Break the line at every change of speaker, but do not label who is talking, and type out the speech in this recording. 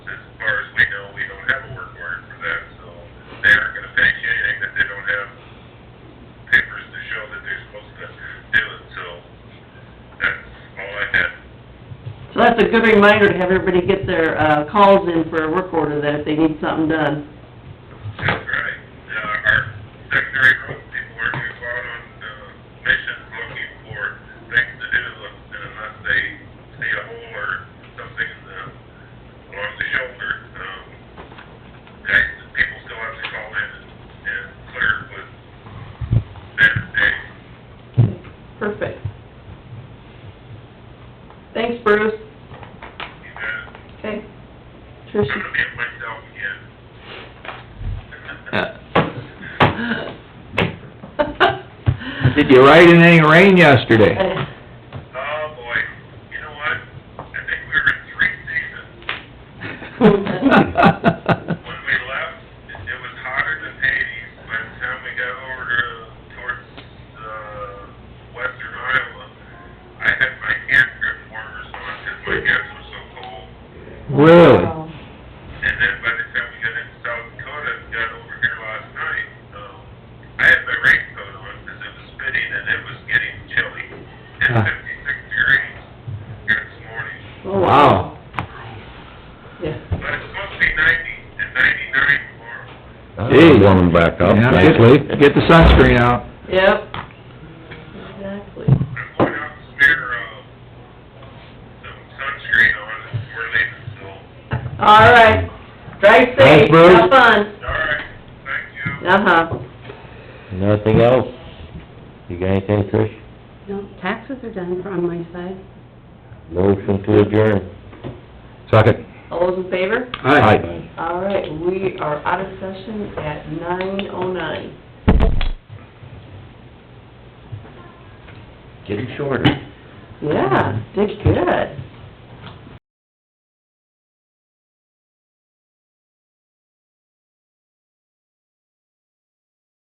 So that's a good reminder to have everybody get their, uh, calls in for a work order that if they need something done.
That's right. Uh, our secondary road people are doing well on the mission looking for things to do, and unless they see a hole or something in the, along the shoulder, um, guys, people still have to call in and, and clear with that day.
Perfect. Thanks, Bruce.
You know,
Okay.
I'm
Trish,
gonna
you-
be myself again.
Did you ride in any rain yesterday?
Oh, boy. You know what? I think we were in three seasons. When we left, it it was hotter than Hades by the time we got over to, towards, uh, western Iowa. I had my hand grip warmers on because my hands were so cold.
Really?
Oh.
And then by the time we got into South Dakota and got over here last night, um, I had my raincoat on because it was fitting and it was getting chilly. It's
Huh.
fifty-six degrees here this morning.
Oh,
Wow.
Yeah.
But it's supposed to be ninety and ninety-nine tomorrow.
Gee.
Warming back up.
Yeah, get, get the sunscreen out.
Yep. Exactly.
I'm going out to smear, uh, some sunscreen on it before leaving, so.
All right. Drive
Thanks,
safe,
Bruce.
have fun.
All right, thank you.
Uh-huh.
Nothing else? You got anything, Trish?
No, taxes are done from my side.
Motion to adjourn.
Second.
All those in favor?
Aye.
All right, we are out of session at nine oh nine.
Getting shorter.
Yeah, did good.